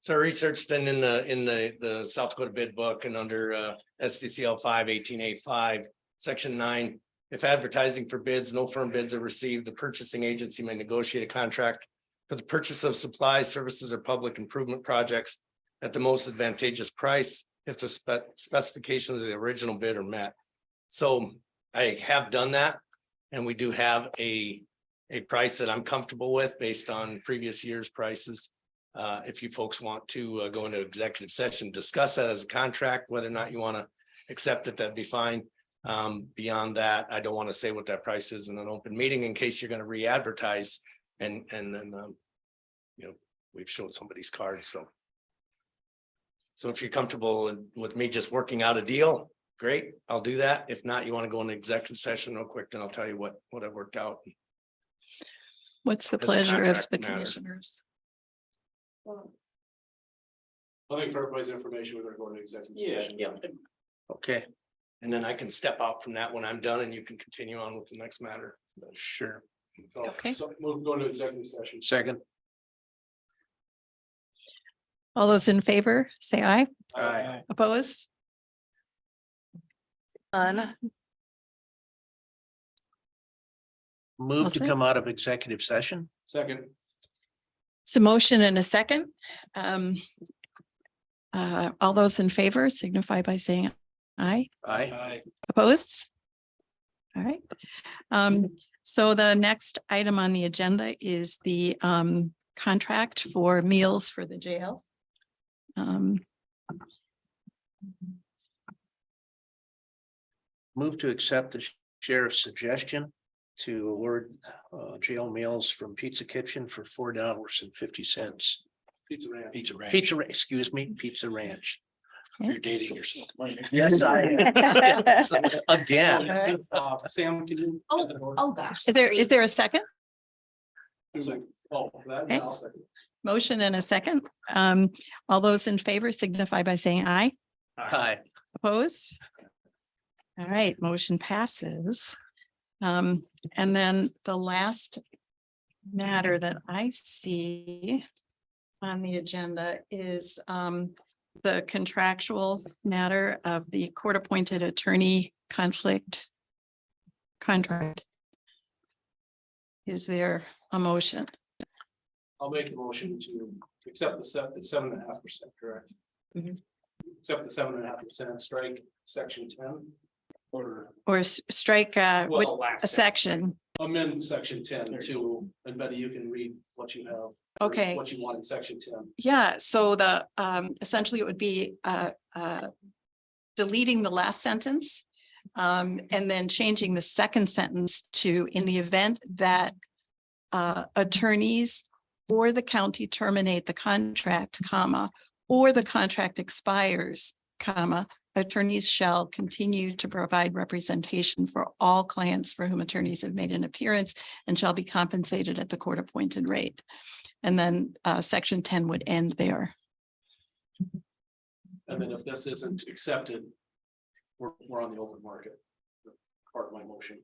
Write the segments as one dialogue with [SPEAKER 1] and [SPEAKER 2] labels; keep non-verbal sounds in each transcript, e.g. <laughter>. [SPEAKER 1] So I researched and in the, in the, the South Dakota bid book and under uh, SDCL five eighteen eight five, section nine. If advertising for bids, no firm bids are received, the purchasing agency may negotiate a contract for the purchase of supplies, services, or public improvement projects at the most advantageous price if the spec- specifications of the original bid are met. So I have done that and we do have a, a price that I'm comfortable with based on previous year's prices. Uh, if you folks want to uh, go into executive session, discuss that as a contract, whether or not you want to accept it, that'd be fine. Um, beyond that, I don't want to say what that price is in an open meeting in case you're going to re-advertise and, and then, um, you know, we've showed somebody's card, so. So if you're comfortable with me just working out a deal, great, I'll do that. If not, you want to go into executive session real quick, then I'll tell you what, what I worked out.
[SPEAKER 2] What's the
[SPEAKER 1] As a
[SPEAKER 2] pleasure of
[SPEAKER 1] contract
[SPEAKER 2] the
[SPEAKER 1] matter.
[SPEAKER 2] commissioners?
[SPEAKER 1] I think for everybody's information, we're gonna go into executive
[SPEAKER 3] session.
[SPEAKER 1] Yeah. Okay. And then I can step out from that when I'm done and you can continue on with the next matter. Sure.
[SPEAKER 2] Okay.
[SPEAKER 1] So we'll go to executive session. Second.
[SPEAKER 2] All those in favor, say aye.
[SPEAKER 1] Aye.
[SPEAKER 2] Opposed? None. I'll
[SPEAKER 3] Move to
[SPEAKER 2] say-
[SPEAKER 3] come out of executive session?
[SPEAKER 1] Second.
[SPEAKER 2] So motion and a second. Um, uh, all those in favor signify by saying aye.
[SPEAKER 3] Aye.
[SPEAKER 2] Opposed? All right. Um, so the next item on the agenda is the um contract for meals for the jail. Um,
[SPEAKER 3] Move to accept the sheriff's suggestion to award uh, jail meals from Pizza Kitchen for four dollars and fifty cents.
[SPEAKER 1] Pizza Ranch.
[SPEAKER 3] Pizza Ranch. Pizza, Ra- excuse me, Pizza Ranch.
[SPEAKER 2] You're
[SPEAKER 3] dating yourself. Yes, <laughs> I. am. Again.
[SPEAKER 1] Uh, Sam, can you?
[SPEAKER 4] Oh, gosh.
[SPEAKER 2] is there, is there a second?
[SPEAKER 1] Oh, that,
[SPEAKER 2] Okay.
[SPEAKER 1] I'll second.
[SPEAKER 2] Motion and a second. Um, all those in favor signify by saying aye.
[SPEAKER 3] Hi.
[SPEAKER 2] Opposed? All right, motion passes. Um, and then the last matter that I see on the agenda is um the contractual matter of the court-appointed attorney conflict contract. Is there a motion?
[SPEAKER 1] I'll make a motion to accept the seven, seven and a half percent, correct?
[SPEAKER 2] Mhm.
[SPEAKER 1] Accept the seven and a half percent strike, section ten. Or,
[SPEAKER 2] Or s- strike uh, which-
[SPEAKER 1] well, last.
[SPEAKER 2] a section?
[SPEAKER 1] amend section ten to, and Betty, you can read what you have. or
[SPEAKER 2] Okay.
[SPEAKER 1] What you want in section ten.
[SPEAKER 2] Yeah, so the, um, essentially it would be, uh, uh, deleting the last sentence. Um, and then changing the second sentence to, in the event that, uh, attorneys or the county terminate the contract, comma, or the contract expires, comma, attorneys shall continue to provide representation for all clients for whom attorneys have made an appearance and shall be compensated at the court-appointed rate. And then uh, section ten would end there.
[SPEAKER 1] And then if this isn't accepted, we're, we're on the open market. Part of my motion.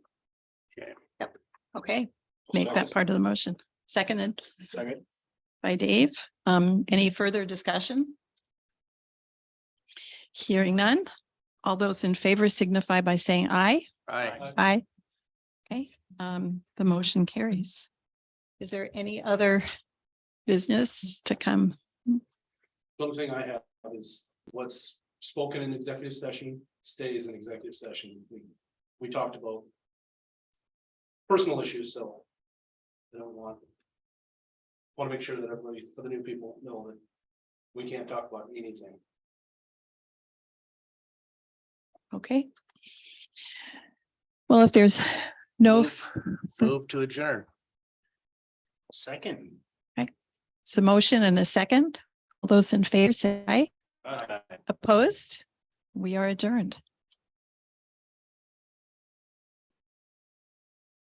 [SPEAKER 2] Okay, make that part of the motion. Seconded
[SPEAKER 1] Second.
[SPEAKER 2] by Dave. Um, any further discussion? Hearing none. All those in favor signify by saying aye.
[SPEAKER 3] Aye.
[SPEAKER 1] Uh,
[SPEAKER 2] Aye. Okay, um, the motion carries. Is there any other business to come?
[SPEAKER 1] The only thing I have is what's spoken in executive session stays in executive session. We, we talked about. Personal issues, so. I don't want. Want to make sure that everybody, for the new people, know that. We can't talk about anything.
[SPEAKER 2] Okay. Well, if there's no f-
[SPEAKER 3] Move to adjourn. Second.
[SPEAKER 2] So motion and a second. All those in favor say aye.
[SPEAKER 3] Aye.
[SPEAKER 2] Opposed? We are adjourned.